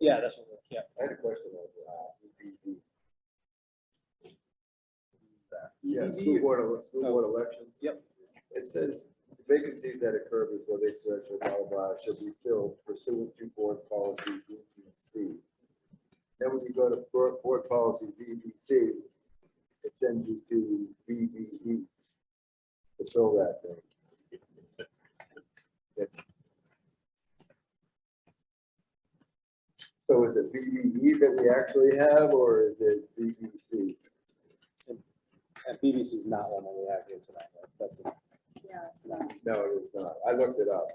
Yeah, that's what, we're- yeah. I had a question of, uh, EPD. Yeah, EPD. school board, ele- school Oh. board election. Yep. It says vacancies that occur before the exertion, blah, blah, blah, should be filled pursuant to board policy E VBC. Then when you go to board, board policy E VBC, it sends you to VBE to fill that thing. It's- So is it VBE that we actually have, or is it E VBC? And BBC is not one that we have here tonight, but that's it. Yeah, it's not. No, it is not. I looked it up,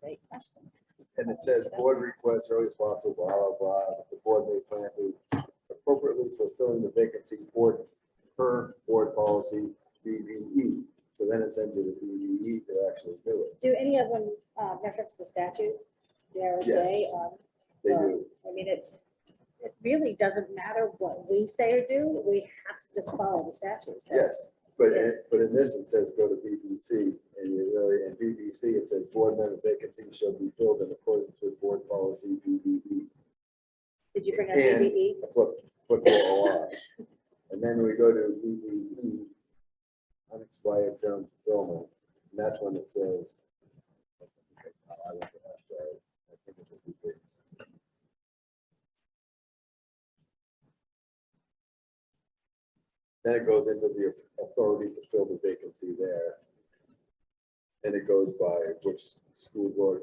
Great question. and it says board requests are responsible, blah, blah, blah. The board may plan to appropriately fulfilling the vacancy board per board policy BBE. So then it's into the BBE to actually do it. Do any of them uh, reference the statute, the RSA? Yes. Um, They do. I mean, it, it really doesn't matter what we say or do, we have to follow the statute, so. Yes, but in, Yes. but in this, it says go to BBC, and you really, in BBC, it says board member vacancy shall be filled in accordance with board policy E. BBE. Did you bring up E? And- BBE? Foot- Football law. And then we go to BBE, unexpired term fulfillment, and that's when it says. E. Then it goes into the authority to fill the vacancy there. And it goes by which school board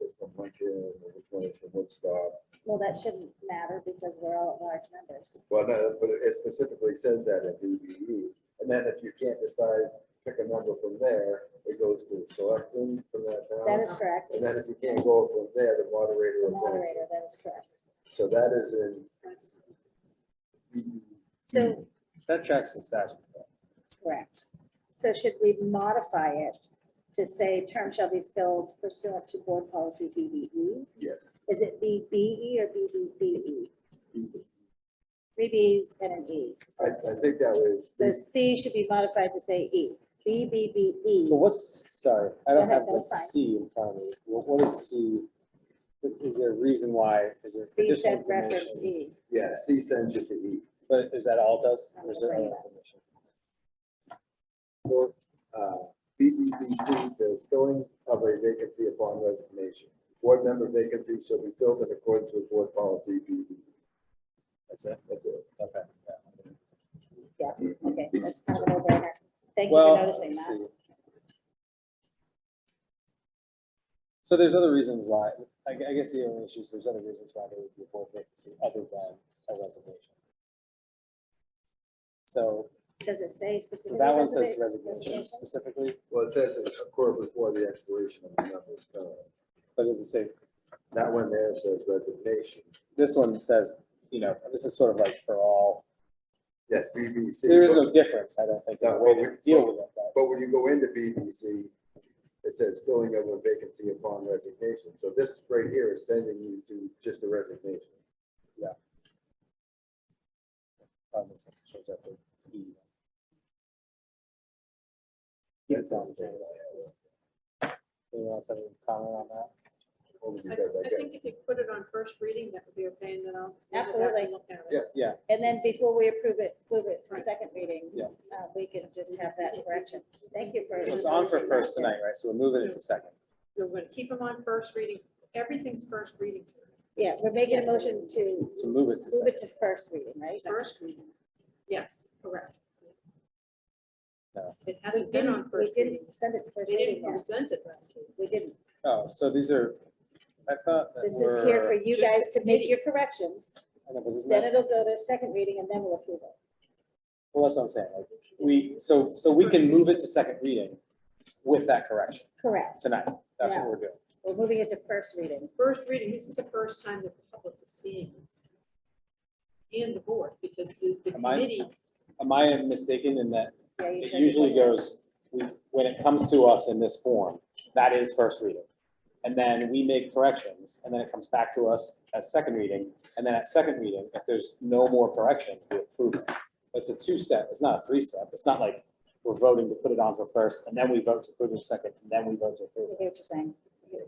is from Lincoln, or which one is from Woodstock. Well, that shouldn't matter because we're all at large numbers. Well, no, but it specifically says that in BBE, and then if you can't decide, pick a number from there, it goes to the selectmen from that That town. is correct, And then if you can't go from there, the moderator the appoints. moderator, that is correct. So that is in BBE. Mm-hmm. So, That tracks the statute. correct. So should we modify it to say term shall be filled pursuant to board policy BBE? Yes, Is it BBE or BBBE? BBE. Three Bs and an E. I, I think that was, So C should be modified to say E. BBBE. But what's, sorry, I don't Go ahead, have the that's fine. C in front of me. What, what is C? Is there a reason why? Is there C additional should reference information? E. yeah, C sends you to E. But is that all it does? Or is there I'm other afraid not. information? Well, uh, BBBC says filling of a vacancy upon resignation. Board member vacancy shall be filled in accordance with board policy BBE. That's it? That's it. Okay. Yeah, E. okay, that's kind of a no-brainer. Thank you Well, for noticing let's that. see. So there's other reasons why, I, gue- I guess the only issue is there's other reasons why there would be a board vacancy other than a resignation. So, Does it say so specifically? that one says reserva- resignation specifically, Well, it says it's occurred before the expiration of the member's term. but does it say, That one there says resignation. this one says, you know, this is sort of like for all, Yes, BBC. there is but- no difference, I don't think, in the No, way well, to we- deal with it, but But when you go into BBC, it says filling of a vacancy upon resignation. So this right here is sending you to just a resignation. probably since it shows up to E. That sounds Anyone right. else have any comment on that? Only I because I get- think if you put it on first reading, that would be okay, and then I'll. Absolutely. Look at it. Yeah. And then before we approve it, move it to Right. second reading. Yeah. uh, We can just have that correction. Thank you for. Yeah, It's on for noticing that, first too. tonight, right? So we're moving it to second. We're gonna keep them on first reading, everything's first reading, Yeah, we're making a motion to. To move it to Move it to first reading, right? first reading. Yes, correct. No. It We hasn't been on didn't, we first reading. didn't send it to first They reading didn't yet. present it last week. We didn't. Oh, so these are, I thought that This is here for were- you Just guys to make your corrections. I know, but isn't Then that- it'll go to second reading and then we'll approve it. Well, that's what I'm saying. Like, we, so, so we can move it to second reading with that correction Correct. tonight. That's what Yeah. we're doing. We're moving it to first reading. First reading, this is the first time the public is seeing this. And the board, because the the Am I- committee, Am I mistaken in that Yeah, you it turned usually over. goes, we- when it comes to us in this form, that is first reading. And then we make corrections, and then it comes back to us as second reading, and then at second reading, if there's no more correction, we approve it. It's a two-step, it's not a three-step, it's not like we're voting to put it on for first, and then we vote to approve it second, and then we vote to I approve it. hear what you're saying.